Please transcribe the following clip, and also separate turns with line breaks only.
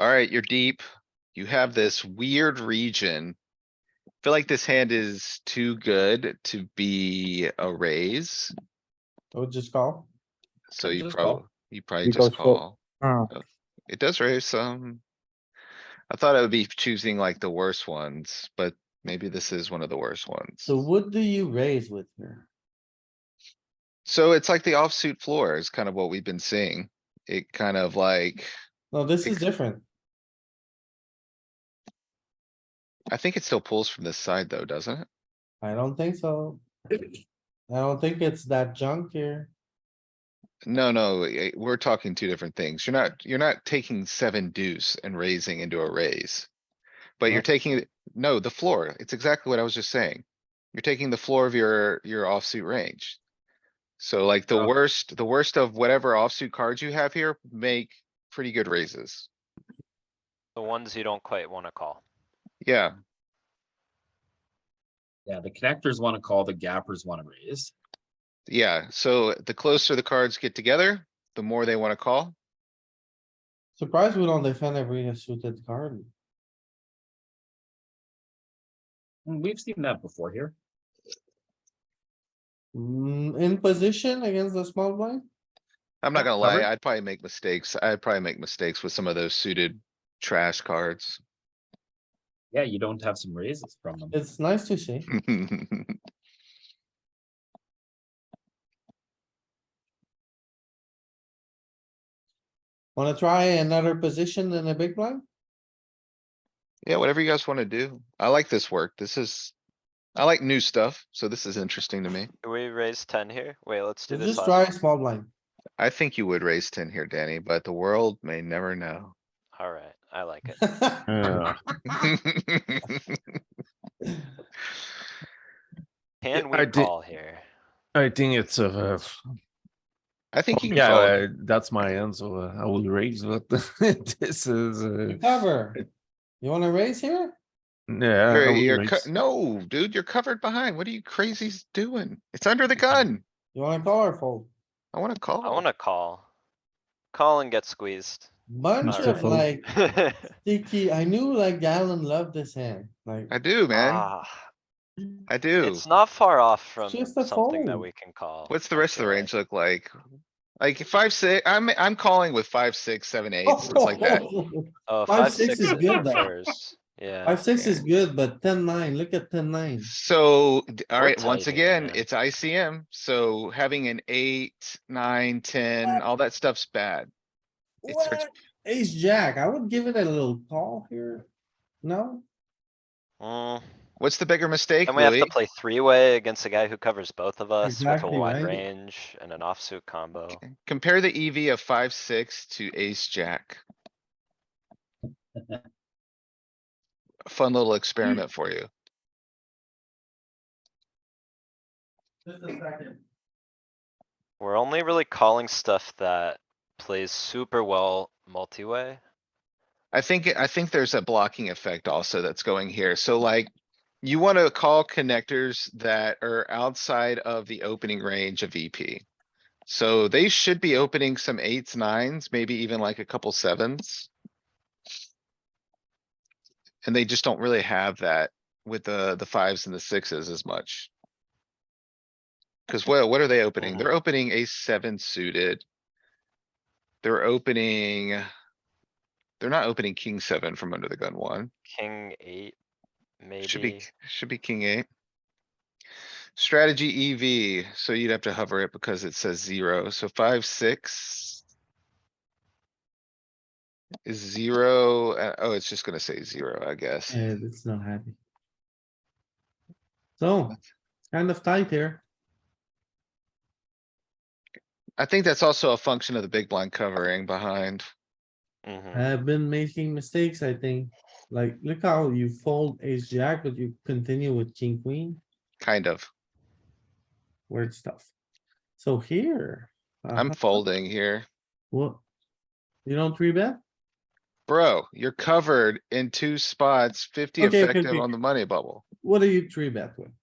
Alright, you're deep. You have this weird region. Feel like this hand is too good to be a raise,
I would just call.
so
I
you
just call.
probably, you probably
You
just
guys call.
call.
Uh,
It does raise some. I thought I would be choosing like the worst ones, but maybe this is one of the worst ones.
so what do you raise with here?
So it's like the offsuit floor is kind of what we've been seeing. It kind of like,
No, this is different.
I think it still pulls from this side though, doesn't it?
I don't think so. I don't think it's that junk here.
No, no, eh, we're talking two different things. You're not, you're not taking seven deuce and raising into a raise. But you're
What?
taking, it- no, the floor. It's exactly what I was just saying. You're taking the floor of your, your offsuit range. So like the
Oh.
worst, the worst of whatever offsuit cards you have here make pretty good raises.
The ones you don't quite wanna call.
Yeah,
Yeah, the connectors wanna call, the gappers wanna raise.
yeah. So the closer the cards get together, the more they wanna call.
Surprised we don't defend every suited card.
Mm, We've seen that before here.
Mm, in position against the small blind?
I'm not
Yeah,
gonna
covered.
lie, I'd probably make mistakes. I'd probably make mistakes with some of those suited trash cards.
Yeah, you don't have some raises from them.
It's nice to see. Wanna try another position in a big blind?
Yeah, whatever you guys wanna do. I like this work. This is, I like new stuff, so this is interesting to me.
Do we raise ten here? Wait, let's do this
Just
last
try
one.
a small blind.
I think you would raise ten here, Danny, but the world may never know.
Alright, I like it. Can
I
we
did-
call here?
I think it's uh,
I think you can
yeah,
call.
uh, that's my answer. Uh, I will raise, but this is uh,
You Cover. You wanna raise here?
yeah. I
You're-
will
you're
raise.
co- no, dude, you're covered behind. What are you crazies doing? It's under the gun.
You wanna call or fold?
I wanna
I
call.
wanna call. Call and get squeezed.
Bunch
Alright.
of like
Ah,
sticky, I knew like Galen loved this hand, like,
I do, man. I do.
Ah, It's not far off from
just a
something that
fold.
we can call.
What's the
I
rest of the
feel like.
range look like? Like five, six, I'm, I'm calling with five, six, seven, eight, something like that.
Oh,
Five,
five,
six
six
is
is
good, though.
first. Yeah,
five, six is good, but ten, nine, look at ten, nine.
So, d-
We're
alright, once
tight here,
again,
man.
it's ICM, so having an eight, nine, ten, all that stuff's bad. It starts-
What? Ace, jack, I would give it a little call here. No,
Mm,
What's the bigger mistake,
Then we have
Louis?
to play three-way against a guy who covers both of us with a
Exactly,
wide
right?
range and an offsuit combo.
Compare the EV of five, six to ace, jack. Fun little experiment for you.
just a second.
We're only really calling stuff that plays super well multi-way.
I think, I think there's a blocking effect also that's going here. So like, you wanna call connectors that are outside of the opening range of VP. So they should be opening some eights, nines, maybe even like a couple sevens. And they just don't really have that with the, the fives and the sixes as much. Cause what, what are they opening? They're opening a seven suited. They're opening. They're not opening king seven from under the gun one.
King eight,
Should be,
maybe.
should be king eight. Strategy EV, so you'd have to hover it because it says zero, so five, six. Is zero, uh, oh, it's just gonna say zero, I guess.
Yeah, it's not happy. So, kind of tight here.
I think that's also a function of the big blind covering behind.
Mhm.
I've been making mistakes, I think. Like, look how you fold ace jack, but you continue with king queen,
Kind of.
weird stuff. So here. uh,
I'm
Uh-huh.
folding here.
What? You don't three bet?
Bro, you're covered in two spots, fifty
Okay, okay,
effective
okay.
on the money bubble.
What do you three bet with?